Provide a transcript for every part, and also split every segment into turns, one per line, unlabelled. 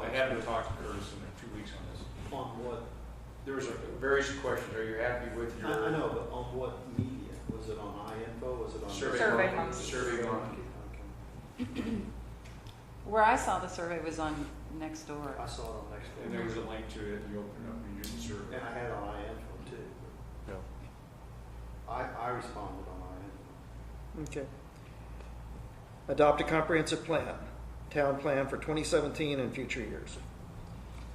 I'd have to talk to Curtis in two weeks on this.
On what,
There was a- various questions. Are you happy with
I,
your?
I know, but on what media? Was it on iInfo? Was it on?
Survey.
Survey
Monkey.
Monkey.
Survey Monkey.
Okay.
Where I saw the survey was on next door.
I saw it on next
And there was
door.
a link to it. You opened it up and you did the survey.
And I had it on iInfo too.
Yeah.
I, I responded on
Okay. Adopt a comprehensive plan, town plan for 2017 and future years.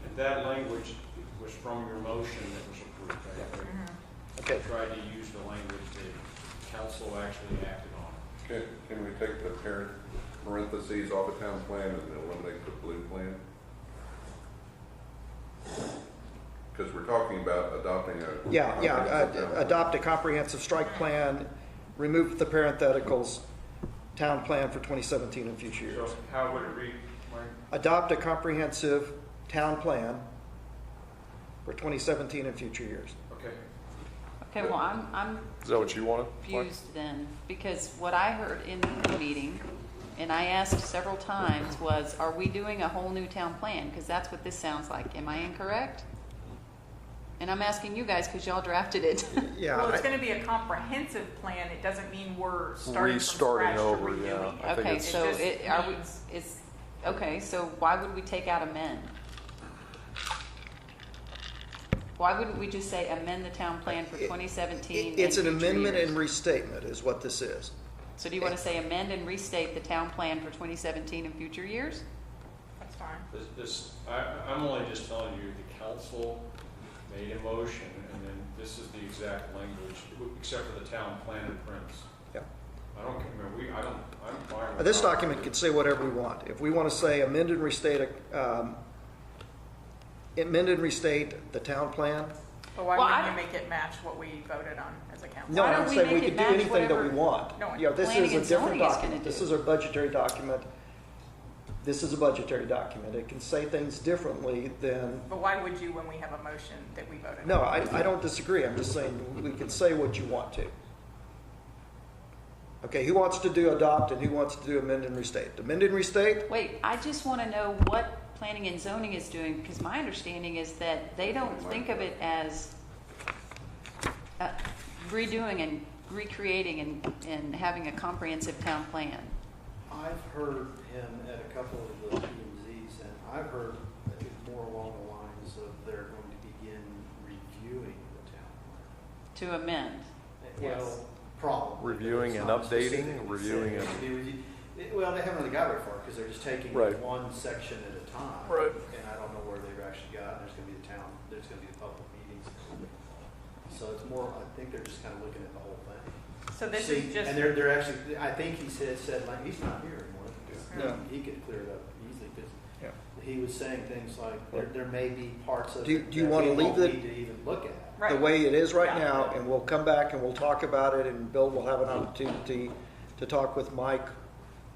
And that language was from your motion that was approved. I think.
Mm-hmm.
Okay,
Tried to use the language that council actually acted on.
Can, can we take the parent parentheses off the town plan and eliminate the blue plan? Because we're talking about adopting a.
yeah, yeah,
comprehensive
uh,
town
adopt a comprehensive strike plan, remove the parentheticals, town plan for 2017 and future years.
So how would it read, Mike?
Adopt a comprehensive town plan for 2017 and future years.
Okay.
Okay, well, I'm, I'm
Is that what you wanted? Mike?
confused then, because what I heard in the meeting, and I asked several times, was, are we doing a whole new town plan? Because that's what this sounds like. Am I incorrect? And I'm asking you guys, because y'all drafted it.
Yeah,
Well, it's
I-
gonna be a comprehensive plan, it doesn't mean we're starting from
Restarting
scratch or
over,
redoing
yeah.
it.
I think
Okay,
it's-
so
It
it,
just
are we,
means-
it's, okay, so why would we take out amend? Why wouldn't we just say amend the town plan for
It- it-
twenty seventeen and
it's an
future
amendment
years?
and restatement is what this is.
So do you want to say amend and restate the town plan for 2017 and future years?
That's fine.
This, this, I, I'm only just telling you, the council made a motion, and then this is the exact language, except for the town plan and prints.
Yep.
I don't, care, I mean, we, I don't, I'm fine
Now,
with.
Uh, This
that.
document can say whatever we want. If we want to say amend and restate, um, amend and restate the town plan,
But
Well,
why
I-
wouldn't you make it match what we voted on as a council?
no,
Why don't
I'm
we
saying we
make it
could do
match
anything that we
whatever-
want.
No,
You know, this
planning
is a
and
different
zoning is
document.
gonna
This
do.
is a budgetary document. This is a budgetary document. It can say things differently than,
But why would you when we have a motion that we voted on?
no, I, I don't disagree. I'm just saying, we can say what you want to. Okay, who wants to do adopt and who wants to do amend and restate? Amend and restate,
Wait, I just want to know what planning and zoning is doing, because my understanding is that they don't think of it as uh, redoing and recreating and, and having a comprehensive town plan.
iInfo. I've heard him at a couple of the PMZs, and I've heard I think more along the lines of they're going to begin reviewing the town plan.
To amend.
Well, probably.
Reviewing
It's
and
not
updating,
specifically said
reviewing
it
and-
should be reviewed. It- Well, they haven't really got very far because they're just taking
Right.
one section at a time.
Right.
And I don't know where they've actually gotten. There's going to be the town, there's going to be the public meetings. So it's more, I think they're just kind of looking at the whole thing.
So this
See,
is just,
And they're, they're actually, I think he said, said like, he's not here anymore.
Yeah.
He- He could clear it up easily because
Yeah.
he was saying things like, there, there may be parts of
Do you-
it
do you
that
wanna
we
leave
won't
the-
Need to even look at.
the
right,
way it is right
Yeah.
now, and we'll come back and we'll talk about it, and Bill will have an opportunity to talk with Mike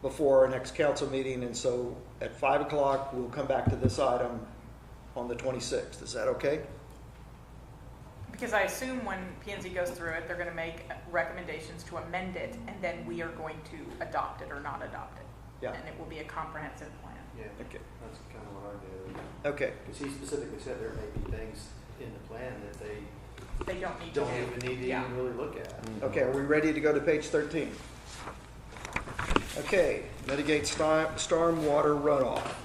before our next council meeting, and so at five o'clock, we'll come back to this item on the twenty-sixth. Is that okay?
because I assume when P and Z goes through it, they're gonna make recommendations to amend it, and then we are going to adopt it or not adopt it.
Yeah.
And it will be a comprehensive plan.
Yeah,
Okay.
that's kind of what I did.
Okay,
Because he specifically said there may be things in the plan that they
They don't need to.
don't even need to
Yeah.
even really look at.
okay, are we ready to go to page thirteen? Okay, mitigate storm, stormwater runoff.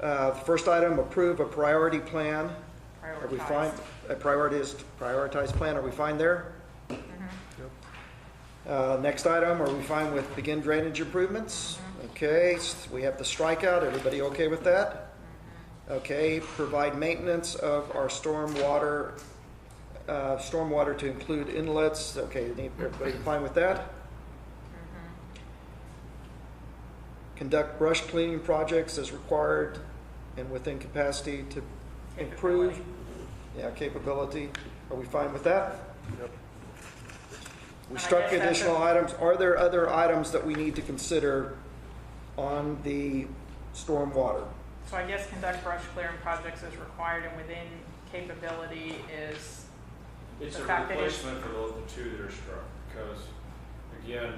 Uh, the first item, approve a priority plan. Are we fine?
Prioritize.
A prioritized, prioritized plan, are we fine there? Uh, Next item, are we fine with begin drainage improvements? Okay, s- we have the strikeout, everybody okay with that? Okay, provide maintenance of our stormwater, uh, stormwater to include inlets, okay, need- everybody fine with that?
Mm-hmm.
Conduct brush cleaning projects as required and within capacity to improve.
Capability.
Yeah, capability, are we fine with that? We
And I
struck
guess that's
additional
a-
items. Are there other items that we need to consider on the stormwater?
So I guess conduct brush clearing projects as required and within capability is,
It's a
The fact that it's-
replacement for the the two that are struck, because, again,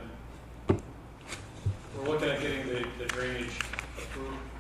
we're looking at getting the, the drainage approved